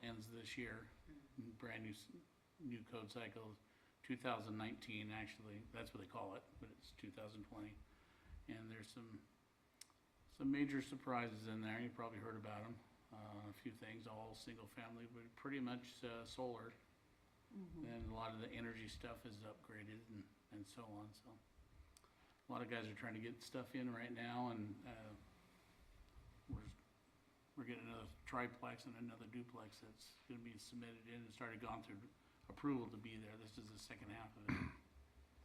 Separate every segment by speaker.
Speaker 1: plans this year, brand new, s- new code cycle, two thousand nineteen, actually, that's what they call it, but it's two thousand twenty. And there's some, some major surprises in there, you probably heard about them, uh, a few things, all single-family, but pretty much, uh, solar. And a lot of the energy stuff is upgraded and, and so on, so. A lot of guys are trying to get stuff in right now and, uh, we're, we're getting another triplex and another duplex that's gonna be submitted in and started gone through approval to be there. This is the second half of it.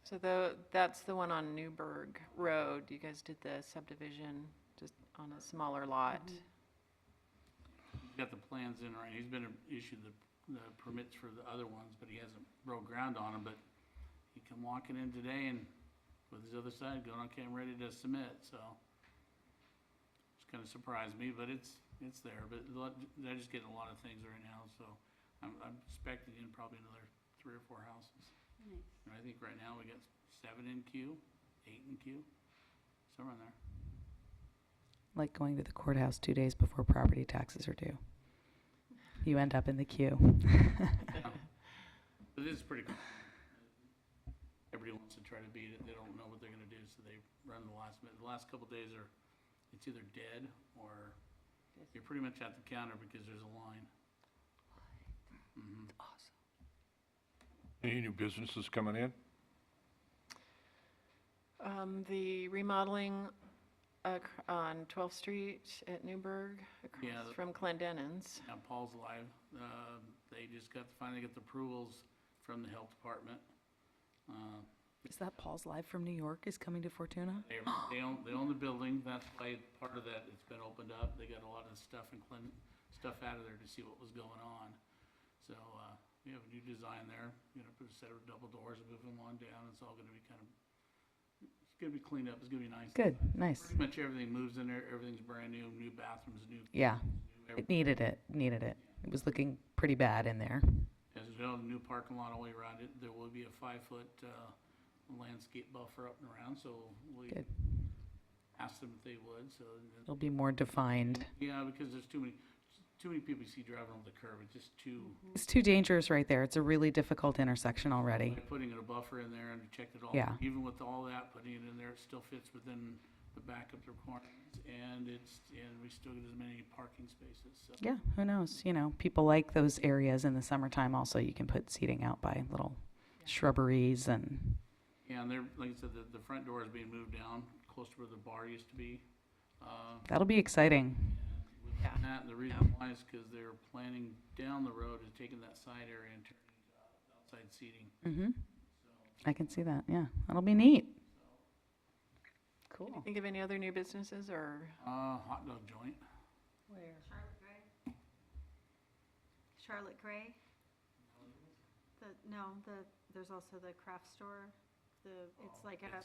Speaker 2: So tho- that's the one on Newburgh Road. You guys did the subdivision just on a smaller lot.
Speaker 1: He's got the plans in right, he's been issued the, the permits for the other ones, but he hasn't broke ground on them, but he come walking in today and with his other side going, okay, I'm ready to submit, so. It's kinda surprised me, but it's, it's there, but a lot- they're just getting a lot of things right now, so I'm, I'm expecting in probably another three or four houses. And I think right now we got seven in queue, eight in queue, somewhere in there.
Speaker 3: Like going to the courthouse two days before property taxes are due. You end up in the queue.
Speaker 1: But this is pretty cool. Everybody wants to try to beat it, they don't know what they're gonna do, so they run the last minute. The last couple days are, it's either dead or you're pretty much at the counter because there's a line. Mhm.
Speaker 4: Any new businesses coming in?
Speaker 5: Mm-hmm.
Speaker 2: Um, the remodeling ac- on 12th Street at Newburgh
Speaker 1: Yeah,
Speaker 2: across
Speaker 1: the-
Speaker 2: from Clendenin's.
Speaker 1: Now Paul's live, uh, they just got, finally got the approvals from the health department. Uh,
Speaker 3: Is that Paul's Live from New York is coming to Fortuna?
Speaker 1: They, they own, they own the building, that's why part of that, it's been opened up, they got a lot of stuff and clean, stuff out of there to see what was going on. So, uh, we have a new design there, you know, put a set of double doors, move them on down, it's all gonna be kind of, it's gonna be cleaned up, it's gonna be nice.
Speaker 3: Good, nice.
Speaker 1: Pretty much everything moves in there, everything's brand new, new bathrooms, new,
Speaker 3: Yeah,
Speaker 1: new everything.
Speaker 3: it needed it, needed it. It was looking pretty bad in there.
Speaker 1: As well, the new parking lot all the way around it, there will be a five-foot, uh, landscape buffer up and around, so we
Speaker 3: Good.
Speaker 1: asked them if they would, so. and-
Speaker 3: It'll be more defined.
Speaker 1: Yeah, because there's too many, too many people you see driving over the curb, it's just too,
Speaker 3: It's too dangerous right there. It's a really difficult intersection already.
Speaker 1: like putting in a buffer in there and checked it all.
Speaker 3: Yeah.
Speaker 1: Even with all that, putting it in there, it still fits within the backup requirements, and it's, and we still get as many parking spaces, so.
Speaker 3: Yeah, who knows? You know, people like those areas in the summertime also. You can put seating out by little shrubberies and
Speaker 1: Yeah, And they're, like I said, the, the front door is being moved down, close to where the bar used to be. Uh,
Speaker 3: that'll be exciting.
Speaker 1: with
Speaker 2: Yeah.
Speaker 1: that, and the reason why is because they're planning down the road and taking that side area and turning it to outside seating.
Speaker 3: Mm-hmm. I can see that, yeah. That'll be neat.
Speaker 2: Can you
Speaker 3: Cool.
Speaker 2: think of any other new businesses or?
Speaker 1: Uh, hot dog joint,
Speaker 5: Charlotte Gray? Charlotte Gray? The, no, the, there's also the craft store, the, it's like a,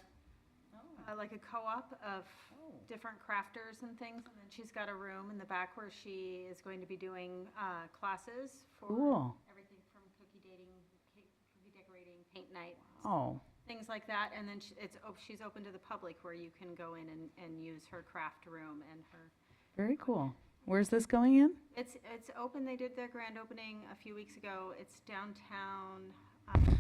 Speaker 5: uh, like a co-op of different crafters and things. And then she's got a room in the back where she is going to be doing, uh, classes for
Speaker 3: Cool.
Speaker 5: everything from cookie dating, cake- cookie decorating, paint night,
Speaker 3: Oh,
Speaker 5: things like that. And then she- it's, op- she's open to the public where you can go in and, and use her craft room and her
Speaker 3: very cool. Where's this going in?
Speaker 5: it's, it's open, they did their grand opening a few weeks ago. It's downtown, um,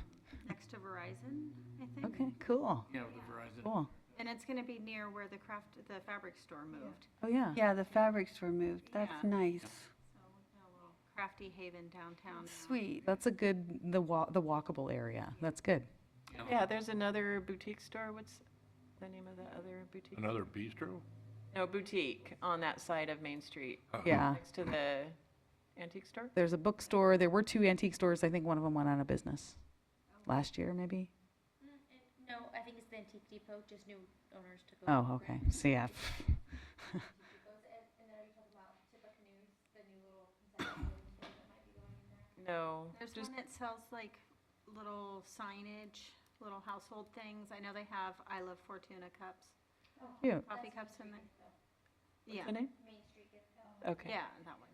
Speaker 5: next to Verizon, I think.
Speaker 3: Okay, cool,
Speaker 1: yeah, with the Verizon.
Speaker 3: cool.
Speaker 5: And it's gonna be near where the craft, the fabric store moved.
Speaker 3: Oh, yeah.
Speaker 6: Yeah, the fabrics were moved. That's
Speaker 5: Yeah.
Speaker 6: nice.
Speaker 5: So we've got a little Crafty Haven downtown. now.
Speaker 6: Sweet.
Speaker 3: That's a good, the wa, the walkable area. That's good.
Speaker 2: Yeah, there's another boutique store. What's the name of the other boutique?
Speaker 4: Another bistro?
Speaker 2: No, boutique on that side of Main Street,
Speaker 3: Yeah.
Speaker 2: next to the antique store.
Speaker 3: There's a bookstore. There were two antique stores. I think one of them went out of business last year, maybe.
Speaker 7: Mm, it- No, I think it's the Antique Depot, just new owners took over.
Speaker 3: Oh, okay. So, yeah.
Speaker 7: Antique Depots, and, and then are you talking about Tippecanoes, the new little concession stand that might be going in there?
Speaker 2: No,
Speaker 5: There's
Speaker 2: just
Speaker 5: one that sells like little signage, little household things. I know they have I Love Fortuna cups,
Speaker 3: Cute.
Speaker 5: coffee cups in there. Yeah,
Speaker 2: the name?
Speaker 7: Main Street Gift Shop.
Speaker 2: Okay.
Speaker 5: yeah, that one.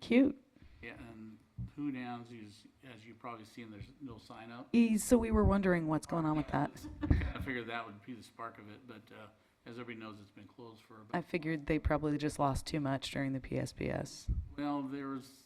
Speaker 3: Cute.
Speaker 1: Yeah, and Who Downs is, as you've probably seen, there's no sign up.
Speaker 3: E- So we were wondering what's going on with that.
Speaker 1: I figured that would be the spark of it, but, uh, as everybody knows, it's been closed for
Speaker 3: I
Speaker 1: about,
Speaker 3: figured they probably just lost too much during the PSPS.
Speaker 1: well, there was